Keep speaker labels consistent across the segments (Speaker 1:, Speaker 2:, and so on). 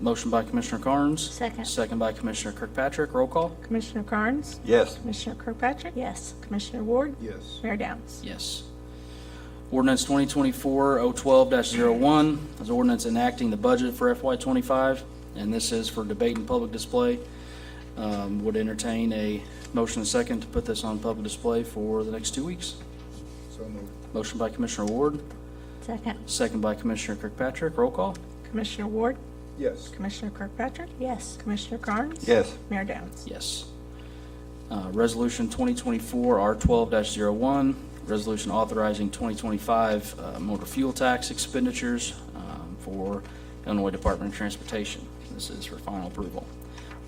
Speaker 1: Motion by Commissioner Carnes.
Speaker 2: Second.
Speaker 1: Second by Commissioner Kirkpatrick. Roll call.
Speaker 3: Commissioner Carnes?
Speaker 4: Yes.
Speaker 3: Commissioner Kirkpatrick?
Speaker 2: Yes.
Speaker 3: Commissioner Ward?
Speaker 4: Yes.
Speaker 3: Mayor Downs?
Speaker 1: Yes. Ordinance 2024-012-01 is ordinance enacting the budget for FY25, and this is for debate and public display. Um, Would entertain a motion and second to put this on public display for the next two weeks.
Speaker 4: So moved.
Speaker 1: Motion by Commissioner Ward,
Speaker 2: Second.
Speaker 1: second by Commissioner Kirkpatrick. Roll call.
Speaker 3: Commissioner Ward?
Speaker 4: Yes.
Speaker 3: Commissioner Kirkpatrick?
Speaker 2: Yes.
Speaker 3: Commissioner Carnes?
Speaker 4: Yes.
Speaker 3: Mayor Downs?
Speaker 1: Yes. Uh, Resolution 2024-R12-01, resolution authorizing 2025 uh, motor fuel tax expenditures um, for Illinois Department of Transportation. This is for final approval.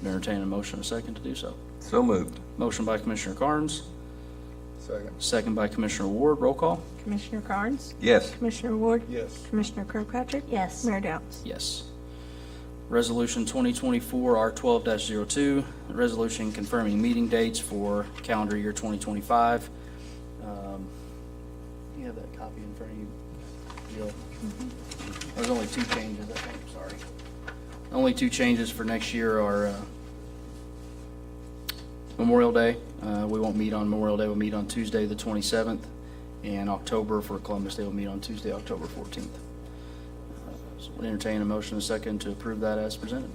Speaker 1: Entertain a motion and a second to do so.
Speaker 4: So moved.
Speaker 1: Motion by Commissioner Carnes,
Speaker 4: Second.
Speaker 1: second by Commissioner Ward. Roll call.
Speaker 3: Commissioner Carnes?
Speaker 4: Yes.
Speaker 3: Commissioner Ward?
Speaker 4: Yes.
Speaker 3: Commissioner Kirkpatrick?
Speaker 2: Yes.
Speaker 3: Mayor Downs?
Speaker 1: Yes. Resolution 2024-R12-02, a oh resolution confirming meeting dates for calendar year 2025. Um, You have that copy in front of you, Jill? There's only two changes, I think, sorry. Only two changes for next year are uh, Memorial Day. Uh, We won't meet on Memorial Day, we'll meet on Tuesday, the 27th, and October for Columbus Day, we'll meet on Tuesday, October 14th. So we'll entertain a motion and a second to approve that as presented.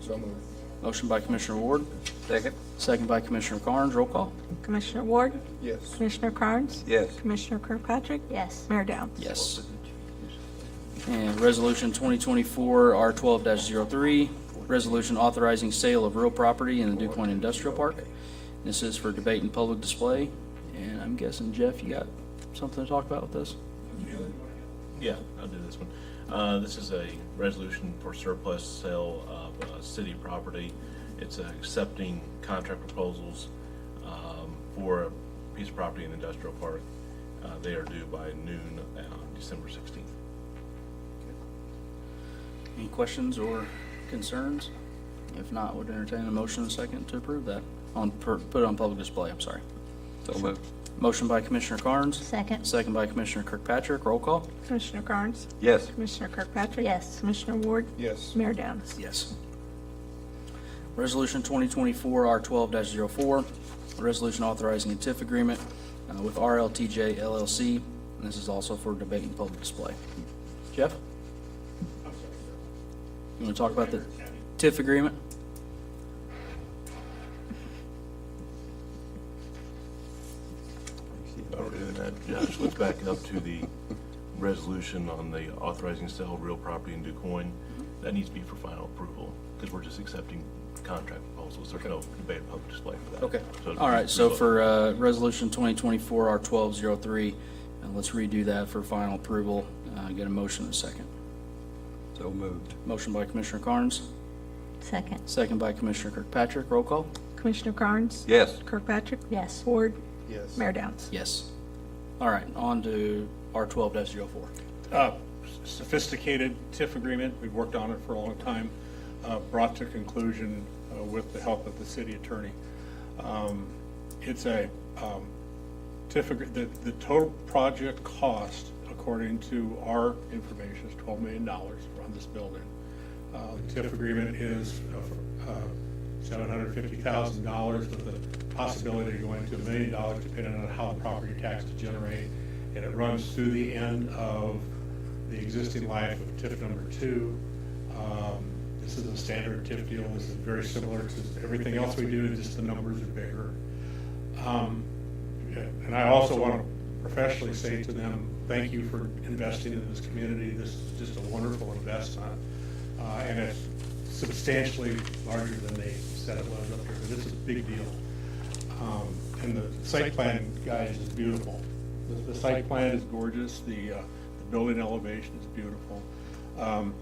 Speaker 4: So moved.
Speaker 1: Motion by Commissioner Ward,
Speaker 4: Second.
Speaker 1: second by Commissioner Carnes, roll call.
Speaker 3: Commissioner Ward?
Speaker 4: Yes.
Speaker 3: Commissioner Carnes?
Speaker 4: Yes.
Speaker 3: Commissioner Kirkpatrick?
Speaker 2: Yes.
Speaker 3: Mayor Downs?
Speaker 1: Yes. And Resolution 2024-R12-03, resolution authorizing sale of real property in the DuPont Industrial Park. This is for debate and public display, and I'm guessing, Jeff, you got something to talk about with this?
Speaker 5: Yeah, I'll do this one. Uh, This is a resolution for surplus sale of uh, city property. It's uh, accepting contract proposals um, for a piece of property in industrial park. Uh, They are due by noon on December 16th.
Speaker 1: Any questions or concerns? If not, would entertain a motion and a second to approve that, on, per- put it on public display, I'm sorry.
Speaker 4: So moved.
Speaker 1: Motion by Commissioner Carnes.
Speaker 2: Second.
Speaker 1: Second by Commissioner Kirkpatrick. Roll call?
Speaker 3: Commissioner Carnes?
Speaker 4: Yes.
Speaker 3: Commissioner Kirkpatrick?
Speaker 2: Yes.
Speaker 3: Commissioner Ward?
Speaker 4: Yes.
Speaker 3: Mayor Downs?
Speaker 1: Yes. Resolution 2024-R12-04, a resolution authorizing a TIF agreement uh, with RLTJ LLC, and this is also for debate and public display. Jeff? You want to talk about the TIF agreement?
Speaker 5: All right, and that Josh, look back up to the resolution on the authorizing sale of real property in DuCoin.
Speaker 1: Mm-hmm.
Speaker 5: That needs to be for final approval because we're just accepting contract proposals. There's no debate or public display for that.
Speaker 1: Okay.
Speaker 5: So it'll
Speaker 1: All
Speaker 5: be
Speaker 1: right, so
Speaker 5: approval.
Speaker 1: for uh, Resolution 2024-R12-03, uh, let's redo that for final approval. Uh, Get a motion and a second.
Speaker 4: So moved.
Speaker 1: Motion by Commissioner Carnes.
Speaker 2: Second.
Speaker 1: Second by Commissioner Kirkpatrick. Roll call?
Speaker 3: Commissioner Carnes?
Speaker 4: Yes.
Speaker 3: Kirkpatrick?
Speaker 2: Yes.
Speaker 3: Ward?
Speaker 4: Yes.
Speaker 3: Mayor Downs?
Speaker 1: Yes. All right, on to R twelve 4
Speaker 6: uh, sophisticated TIF agreement. We've worked on it for a long time, uh, brought to conclusion uh, with the help of the city attorney. Um, It's a um, TIF, agree- the, the total project cost, according to our information, is $12 million on this building. Uh, TIF agreement is uh, $750,000 with the possibility of going to a million dollars depending on how the property taxes generate. And it runs through the end of the existing life of TIF number two. Um, This is a standard TIF deal. This is very similar to everything else we do, just the numbers are bigger. Um, And I also want to professionally say to them, thank you for investing in this community. This is just a wonderful investment. Uh, And it's substantially larger than they said it was up here, but it's a big deal. Um, And the site plan, guys, is beautiful. The- The site plan is gorgeous. The, uh, the building elevation is beautiful. Um,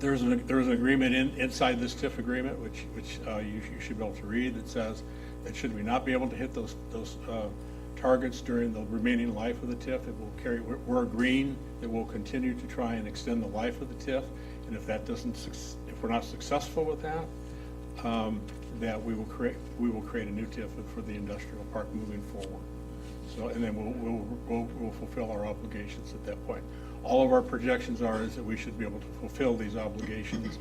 Speaker 6: there's an, there's an agreement in, inside this TIF agreement, which, which uh, you sh- you should be able to read, that says that should we not be able to hit those, those uh, targets during the remaining life of the TIF, it will carry, we're- we're agreeing that we'll continue to try and extend the life of the TIF, and if that doesn't, suc- if we're not successful with that, um, that we will create, we will create a new TIF for the industrial park moving forward. So, and then we'll, we'll, we'll- we'll fulfill our obligations at that point. all of our projections are is that we should be able to fulfill these obligations